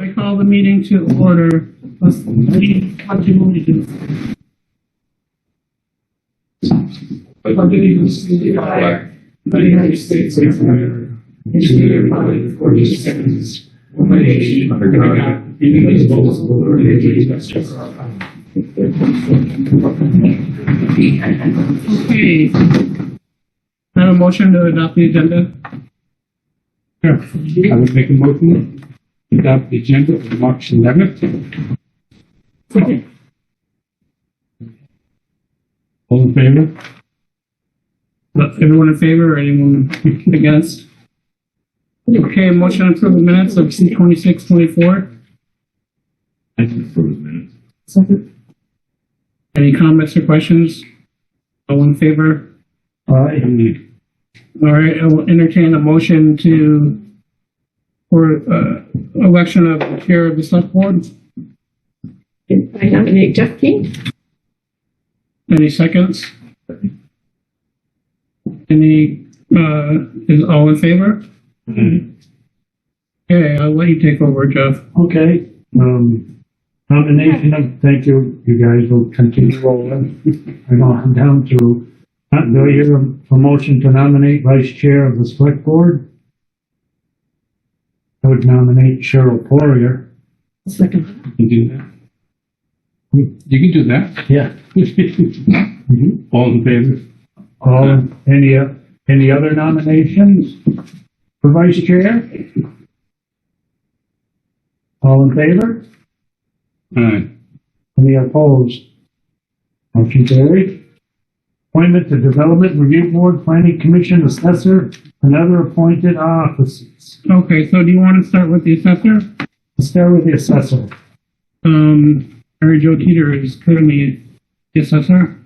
I call the meeting to order. Let's, we, what do we do? pledge allegiance to the flag of the United States of America, and to the republic for which it stands, one nation under God, indivisible, with liberty and justice for all. Okay. I have a motion to adopt the agenda. Sure. I would make a motion to adopt the Mm-hmm. agenda of March 11th. All in favor? Is Everyone in favor or anyone against? Okay, motion to approve the minutes of C twenty-six, twenty-four. I approve the minutes. Second. Any comments or questions? All in favor? Aye. All right, I will entertain a motion to, for, uh, election of the chair of the select board. I nominate Jeff King. Any seconds? Any, uh, is all in favor? Mm-hmm. Okay, I'll let you take over, Jeff. Okay, um, nomination of, thank you, you guys will continue rolling. I'm on down to, uh, do you hear a motion to nominate vice chair of the select board? I would nominate Cheryl Poirier. Second. You do that? You can do that. Yeah. Mm-hmm. All in favor? All, any, uh, any other nominations for vice chair? All in favor? Aye. Any opposed? Motion carried. Appointment to Development Review Board, Planning Commission Assessor, and other appointed offices. Okay, so do you want to start with the assessor? Let's start with the assessor. Um, Mary Jo Teeter is currently the assessor.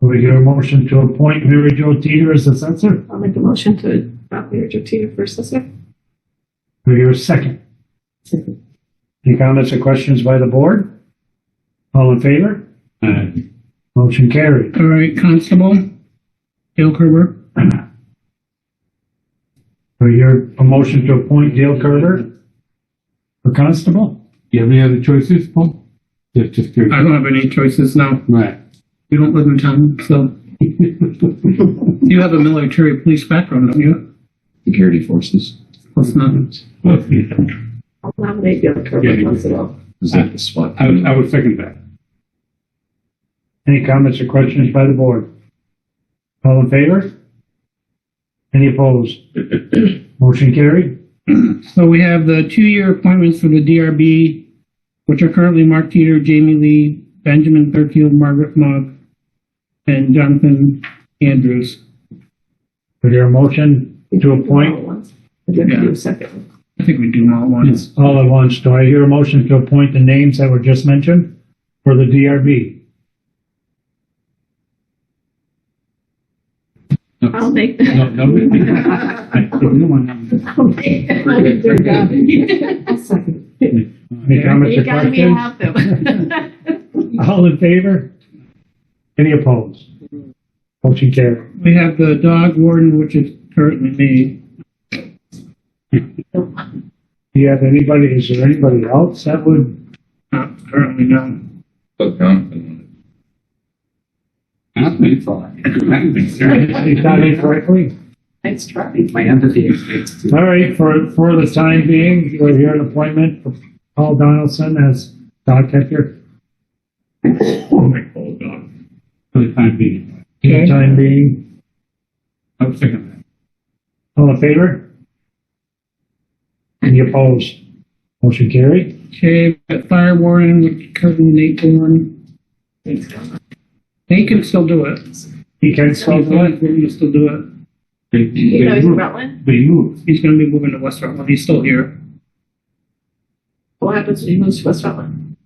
Will we hear a motion to appoint Mary Jo Teeter as assessor? I'll make a motion to adopt Mary Jo Teeter for assessor. Will we hear a second? Any comments or questions by the board? All in favor? Aye. Motion carried. All right, constable, Dale Kerber. For your, a motion to appoint Dale Carter for constable? You have any other choices, Paul? Just, just I curious. don't have any choices now. Right. You don't live in town, so you have a military police background, don't you? security forces. What's not? I'll nominate Bill Yeah, Kerber you- Constable. Is that the spot? I would, I would second that. Any comments or questions by the board? All in favor? Any opposed? Motion carried. So we have the two-year appointments for the DRB, which are currently Mark Teeter, Jamie Lee, Benjamin Thurfield, Margaret Mogg, and Jonathan Andrews. For your motion to appoint I did Yeah. do second. I think we do them all at once. all at once, do I hear a motion to appoint the names that were just mentioned for the DRB? I'll make. No, no, no. I'll make- I'll make their job. I'll second. Any comments or You got me to questions? have them. All in favor? Any opposed? Motion carried. We have the dog warden, which is currently me. Do you have anybody, is there anybody else that would Not currently, no. But, um, That's If that is correctly. Nice try. My empathy extends to All right, for, for the time being, we're here an appointment for Paul Donaldson as dog catcher. For the time being. For the time being, I would second all in favor? Any opposed? Motion carried. Okay, we got fire warden, which is currently Nate Warren. They can still do it. He can still He's do it. going to still do it. that. They, You know, they he's from moved. Rutland. They moved. He's gonna be moving to West Rutland. He's still here. What happens when he moves to West Rutland?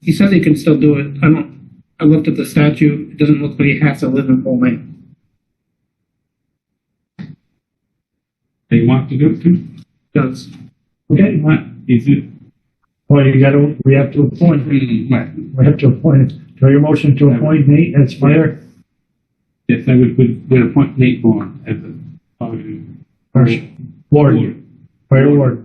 He says he can still do it. I don't, I looked at the statute. It doesn't look like he has to live in Pullman. They want to do it too. Does. Okay, Right. Is it? well, you gotta, we have to appoint, Mm, Right. we have to appoint, do your motion to appoint Nate as fire, Yes, I would, would, would appoint Nate Bourne as a, uh, or warden, fire warden.